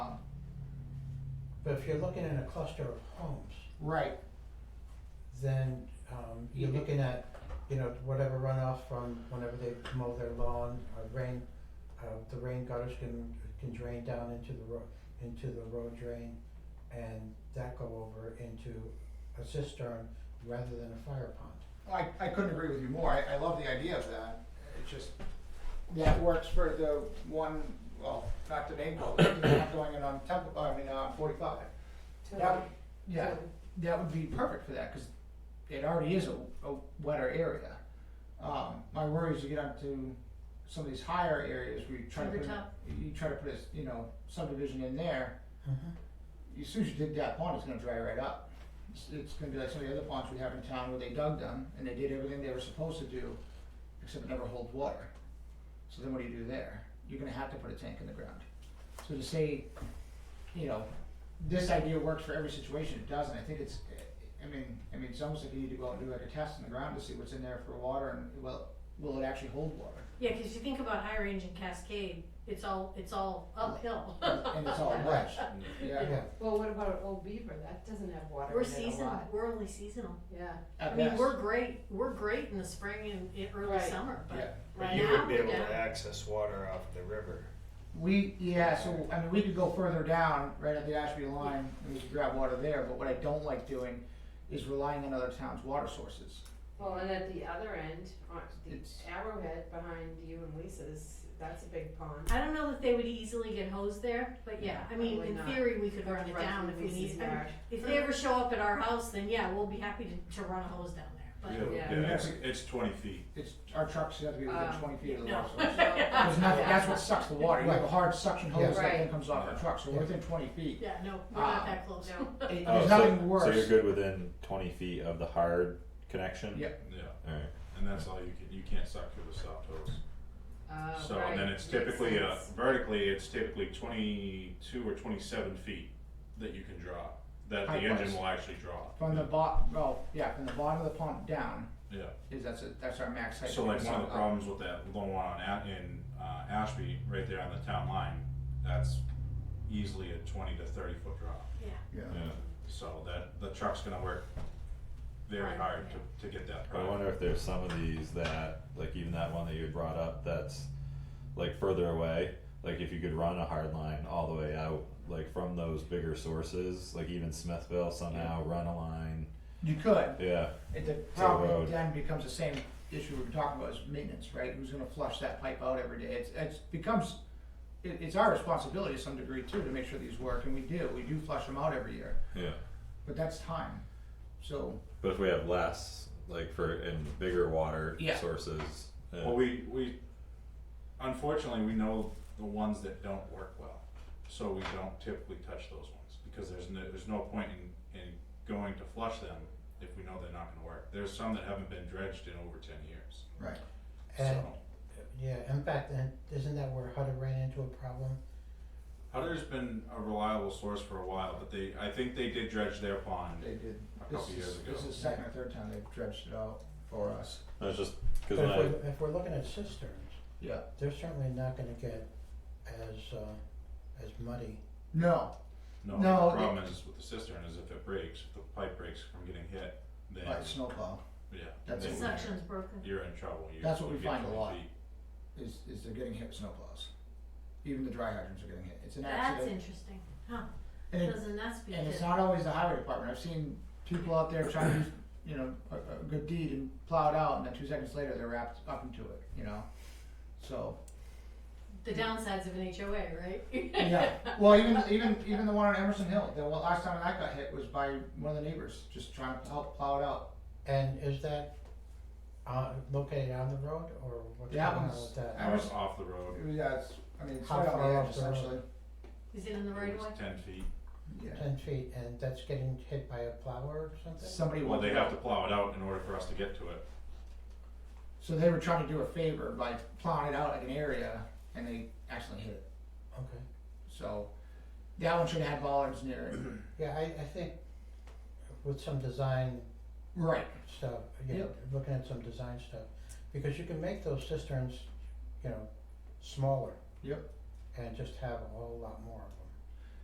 But if you're looking at a cluster of homes, Right, then um you're Yeah. looking at, you know, whatever runoff from whenever they mow their lawn or rain, uh the rain gutters can can drain down into the road, into the road drain and that go over into a cistern rather than a fire pond. I, I couldn't agree with you more, I, I love the idea of that, it's just, that works for the one, well, not the name, but the one going in on Temple, I mean, on forty-five. That, would- yeah, that would be perfect for that, cause it already is a, a wetter area. Um, my worry is you get onto some of these higher areas where you try to put, Rivertop. you try to put a, s- you know, subdivision in there, as soon as you dig that pond, it's gonna dry right up. It's, it's gonna be like some of the other ponds we have in town where they dug them and they did everything they were supposed to do, except it never hold water. So then what do you do there? You're gonna have to put a tank in the ground. So to say, you know, this idea works for every situation, it doesn't, I think it's, I mean, I mean, it's almost like you need to go out and do like a test in the ground to see what's in there for water and, well, will it actually hold water? Yeah, cause you think about High Range and Cascade, it's all, it's all uphill. And and it's all wedged, yeah. Yeah, Well, what about Old Beaver? That doesn't have water We're in it a seasonal, lot. we're only seasonal. Yeah. at I mean, best. we're great, we're great in the spring and in early Right. summer, Yeah. but But right you now, wouldn't be we're able to down. access water off the river. We, yeah, so, I mean, we could go further down, right at the Ashby line, and we could grab water there, but what I don't like doing is relying on other towns' water sources. Well, and at the other end, on the It's- arrowhead behind you and Lisa's, that's a big pond. I don't know that they would easily get hosed there, but yeah, I mean, Probably in not. theory, we could run it Right down through if we Lisa's need, I mean, yard. if they ever show up at our house, then yeah, we'll be happy to, to run a hose down there, Yeah. Yeah, it's, it's twenty feet. It's, our trucks have to be within Um, twenty feet of the no. water source. So, There's nothing, that's yeah. what sucks the water, you have a hard suction hose that then Right. comes off our truck, so we're within twenty but, feet. yeah, no, we're not Ah. that close. No. It- Oh, There's so- nothing So you're worse, good within twenty feet of the hard connection? Yeah. Yeah, Alright, and that's all you can, you can't suck through the stop hose. Uh, So, and then right, it's makes typically, uh, sense. vertically, it's typically twenty-two or twenty-seven feet that you can draw, that the Height-wise. engine will actually draw. from the bot, well, yeah, from the bottom of the pump down, Yeah, is that's, a- that's our max height. so like one of the Uh, problems with that low one on, A- in, uh, Ashby, right there on the town line, that's easily a twenty to thirty foot draw. Yeah. yeah. So that, the truck's gonna work very Right. hard to, to get that. I product. wonder if there's some of these that, like even that one that you had brought up, that's like further away. Like if you could run a hard line all the way out, like from those bigger sources, like even Smithville somehow run a line. You could, Yeah, It, the road. problem then becomes the same issue we were talking about is maintenance, right? Who's gonna flush that pipe out every day? It's, it's becomes, it, it's our responsibility to some degree too, to make sure these work, and we do, we do flush them out every year, yeah. but that's time. So, But if we have less, like for in bigger water Yeah. sources, yeah. Well, we, we, unfortunately, we know the ones that don't work well, so we don't typically touch those ones, because there's no, there's no point in, in going to flush them if we know they're not gonna work. There's some that haven't been dredged in over ten years, right, and so. yeah, in fact, and isn't that where Hutter ran into a problem? Hutter's been a reliable source for a while, but they, I think they did dredge their pond they did. a This couple years is, ago. this is second or third time they've dredged it out for us. that's just But because if when I we're, if we're looking at cisterns, Yeah. they're certainly not gonna get as uh as muddy. No, No, the No, problem is with the cistern is if it breaks, if the pipe breaks from getting hit, then, like snowplow yeah, That's The then it. suction's broken. you're in trouble. You- That's what you we get find a 20 lot. feet. is, is they're getting hit with snowplows. Even the dry hydrants are getting hit. It's an That's accident. interesting, huh, And it- doesn't that speak And it's to, not always the highway department, I've seen people out there trying to, use, you know, a, a good deed and plow it out, and then two seconds later, they're wrapped up into it, you know? So, the downsides of an HOA, right? yeah, well, even, even, even the one on Emerson Hill, the one- last time that got hit was by one of the neighbors, just trying to help plow it out. And is that uh located on the road or what's going That on one's- with that? I was- Off- off the road. It was, yeah, it's, I mean, it's How right on far the off edge the road? essentially, Is it in the right It of way? was ten feet. yeah. Ten feet and that's getting hit by a plow or something? Somebody Well, wanted, they to have help. to plow it out in order for us to get to it. so they were trying to do a favor by plowing it out like an area, and they accidentally hit it, Okay, so, that one should have had bollards near it, yeah, I I think with some design right, stuff, you know, looking at some design stuff, because you can make those cisterns, you know, smaller. Yep. And just have a whole lot more of 'em.